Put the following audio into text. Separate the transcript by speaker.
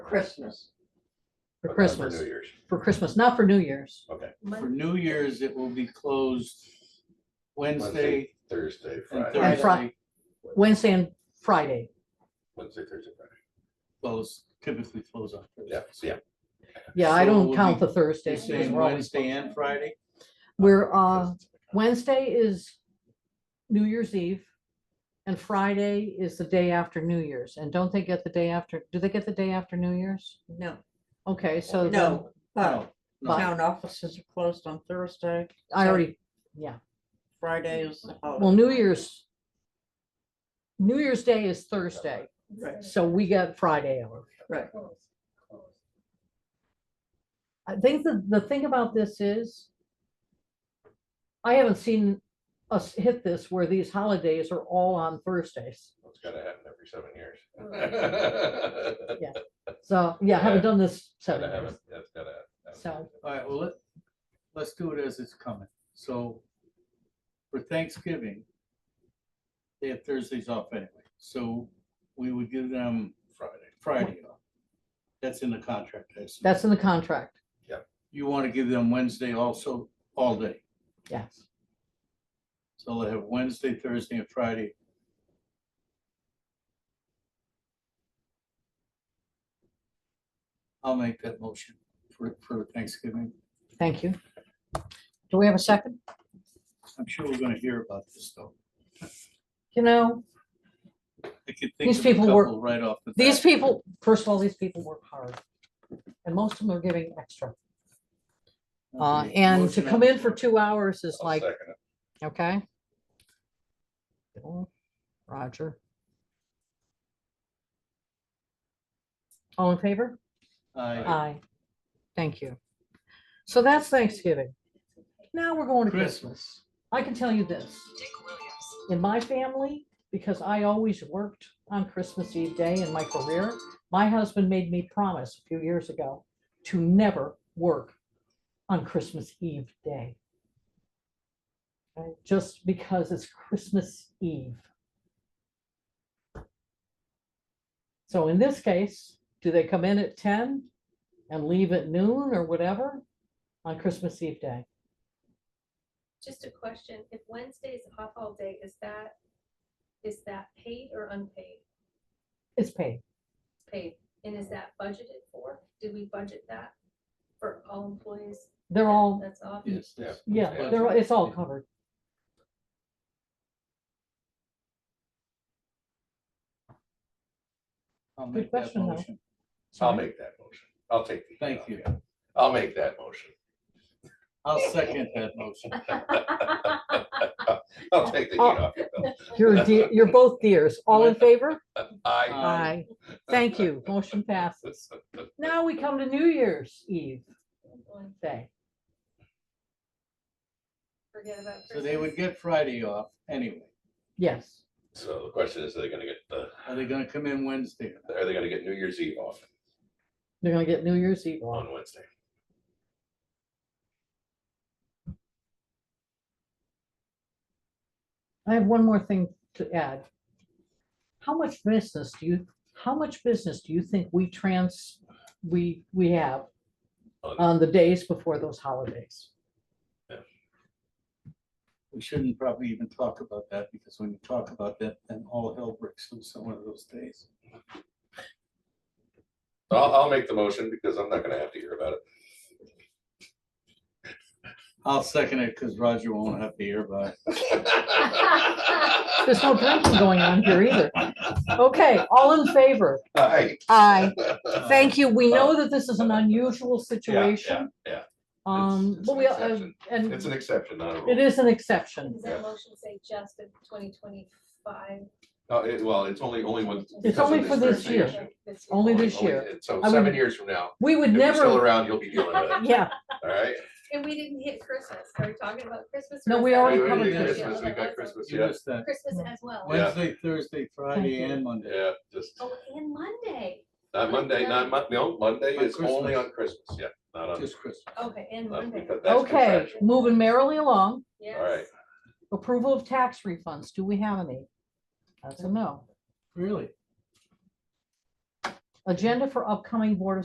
Speaker 1: Christmas,
Speaker 2: Uh,
Speaker 3: for Christmas,
Speaker 2: New Year's.
Speaker 3: for Christmas, not for New Year's.
Speaker 1: for New Year's, it will be closed Wednesday
Speaker 2: Wednesday, Thursday,
Speaker 1: and
Speaker 2: Friday,
Speaker 3: And Fri-
Speaker 1: Thursday.
Speaker 3: Wednesday and Friday.
Speaker 2: Wednesday, Thursday, Friday.
Speaker 1: Close, typically close on. Thursday.
Speaker 2: Yeah, so yeah.
Speaker 3: Yeah, I
Speaker 1: So
Speaker 3: don't
Speaker 1: we'll
Speaker 3: count
Speaker 1: be-
Speaker 3: the Thursday.
Speaker 1: You're
Speaker 3: because
Speaker 1: saying
Speaker 3: we're always
Speaker 1: Wednesday
Speaker 3: closed.
Speaker 1: and Friday?
Speaker 3: We're, uh, Wednesday is New Year's Eve. And Friday is the day after New Year's. And don't they get the day after, do they get the day after New Year's?
Speaker 4: No,
Speaker 3: Okay, so. then-
Speaker 4: no,
Speaker 3: Uh.
Speaker 4: but
Speaker 1: No, no.
Speaker 3: But
Speaker 4: town offices are closed on Thursday,
Speaker 3: I already,
Speaker 4: Friday is the holiday.
Speaker 3: well, New Year's. New Year's Day is Thursday,
Speaker 4: Right.
Speaker 3: so we got Friday off.
Speaker 4: Right.
Speaker 3: I think the, the thing about this is I haven't seen us hit this where these holidays are all on Thursdays.
Speaker 2: It's gotta happen every seven years.
Speaker 3: So, yeah, I haven't done this
Speaker 2: Gotta
Speaker 3: seven
Speaker 2: have
Speaker 3: years.
Speaker 2: it, that's gotta happen.
Speaker 3: So-
Speaker 1: All right, well, let, let's do it as it's coming. So for Thanksgiving, they have Thursdays off anyway, so we would give them
Speaker 2: Friday,
Speaker 1: Friday off. That's in the contract. I assume.
Speaker 3: That's in the contract.
Speaker 1: You want to give them Wednesday also, all day.
Speaker 3: Yes.
Speaker 1: So they'll have Wednesday, Thursday, and Friday. I'll make that motion for, for Thanksgiving.
Speaker 3: Thank you. Do we have a second?
Speaker 1: I'm sure we're gonna hear about this though.
Speaker 3: You know,
Speaker 1: I could think
Speaker 3: These
Speaker 1: of a
Speaker 3: people were-
Speaker 1: couple right off the.
Speaker 3: these
Speaker 1: bat.
Speaker 3: people, first of all, these people work hard. And most of them are giving extra. Uh,
Speaker 1: Okay,
Speaker 3: and to
Speaker 1: motion
Speaker 3: come
Speaker 1: on
Speaker 3: in
Speaker 1: the
Speaker 3: for
Speaker 1: floor.
Speaker 3: two hours is
Speaker 2: I'll
Speaker 3: like,
Speaker 2: second it.
Speaker 3: okay? Bill, Roger. All in favor?
Speaker 1: Aye.
Speaker 3: Aye. Thank you. So that's Thanksgiving. Now we're going to Christmas. I can tell you this. In my family, because I always worked on Christmas Eve day in my career, my husband made me promise a few years ago to never work on Christmas Eve day. Right, Just because it's Christmas Eve. So in this case, do they come in at ten and leave at noon or whatever on Christmas Eve day?
Speaker 5: Just a question, if Wednesday is off all day, is that, is that paid or unpaid?
Speaker 3: It's paid.
Speaker 5: Paid, and is that budgeted for? Did we budget that for all employees?
Speaker 3: They're all,
Speaker 5: That's off?
Speaker 1: Yes,
Speaker 2: Yeah.
Speaker 1: yes.
Speaker 3: yeah, they're, all- it's all covered.
Speaker 1: I'll
Speaker 3: Good
Speaker 1: make that
Speaker 3: question, though.
Speaker 1: motion.
Speaker 2: I'll
Speaker 3: Sorry.
Speaker 2: make that motion. I'll take. the-
Speaker 1: Thank you.
Speaker 2: I'll make that motion.
Speaker 1: I'll second that motion.
Speaker 2: I'll take the heat off you, Bill.
Speaker 3: You're, a dear- you're both dears. All in favor?
Speaker 2: I,
Speaker 1: Aye.
Speaker 3: Aye. Thank you. Motion passes. Now we come to New Year's Eve day.
Speaker 5: Forget about.
Speaker 1: So they would
Speaker 5: Christmas.
Speaker 1: get Friday off anyway.
Speaker 3: Yes.
Speaker 2: so the question is, are they gonna get the,
Speaker 1: Are they gonna come in Wednesday? or not?
Speaker 2: are they gonna get New Year's Eve off
Speaker 3: They're gonna get New Year's Eve off.
Speaker 2: on Wednesday?
Speaker 3: I have one more thing to add. How much business do you, how much business do you think we trans, we, we have
Speaker 2: On-
Speaker 3: on the days before those holidays?
Speaker 1: We shouldn't probably even talk about that because when you talk about that, then all hell breaks loose on one of those days.
Speaker 2: So I'll, I'll make the motion because I'm not gonna have to hear about it.
Speaker 1: I'll second it because Roger won't have to hear about it.
Speaker 3: There's no drinking going on here either. Okay, all in favor?
Speaker 2: Aye.
Speaker 3: Aye.
Speaker 1: Uh,
Speaker 3: Thank you. We know that this is an unusual situation.
Speaker 2: yeah.
Speaker 3: Um,
Speaker 2: it's
Speaker 3: but
Speaker 2: an
Speaker 3: we, uh,
Speaker 2: exception.
Speaker 3: and
Speaker 2: It's an exception, not a
Speaker 3: it
Speaker 2: rule.
Speaker 3: is an exception.
Speaker 5: Does that motion say just of twenty twenty-five?
Speaker 2: No, it- Well, it's only, only one. because of
Speaker 3: only for this
Speaker 2: jurisdiction.
Speaker 3: year. Only this
Speaker 2: Only-
Speaker 3: year.
Speaker 2: it- So
Speaker 3: I
Speaker 2: seven
Speaker 3: would-
Speaker 2: years from now,
Speaker 3: We would
Speaker 2: if you're still
Speaker 3: never,
Speaker 2: around, you'll be dealing with it,
Speaker 3: yeah,
Speaker 2: all right?
Speaker 5: And we didn't hit Christmas. Are we talking about Christmas? or
Speaker 3: No,
Speaker 5: is
Speaker 3: we
Speaker 5: that-
Speaker 3: already
Speaker 2: Wait, wait,
Speaker 3: covered
Speaker 2: wait,
Speaker 3: this, yeah.
Speaker 2: Christmas, we got Christmas,
Speaker 1: You
Speaker 2: yeah,
Speaker 1: missed that.
Speaker 5: Christmas as well.
Speaker 2: Yeah.
Speaker 1: Wednesday, Thursday, Friday
Speaker 3: you.
Speaker 1: and Monday.
Speaker 2: yeah, just,
Speaker 5: Oh, and Monday.
Speaker 2: not Monday, not Mon, no, Monday
Speaker 1: On
Speaker 2: is only
Speaker 1: Christmas.
Speaker 2: on Christmas, yeah, not on.
Speaker 1: Just Christmas.
Speaker 5: Okay, and
Speaker 2: not
Speaker 5: Monday.
Speaker 2: because that's
Speaker 3: okay,
Speaker 2: contractual.
Speaker 3: moving merrily along.
Speaker 5: Yes.
Speaker 2: All right,
Speaker 3: Approval of tax refunds. Do we have any? That's a no.
Speaker 1: Really?
Speaker 3: A Agenda for upcoming Board of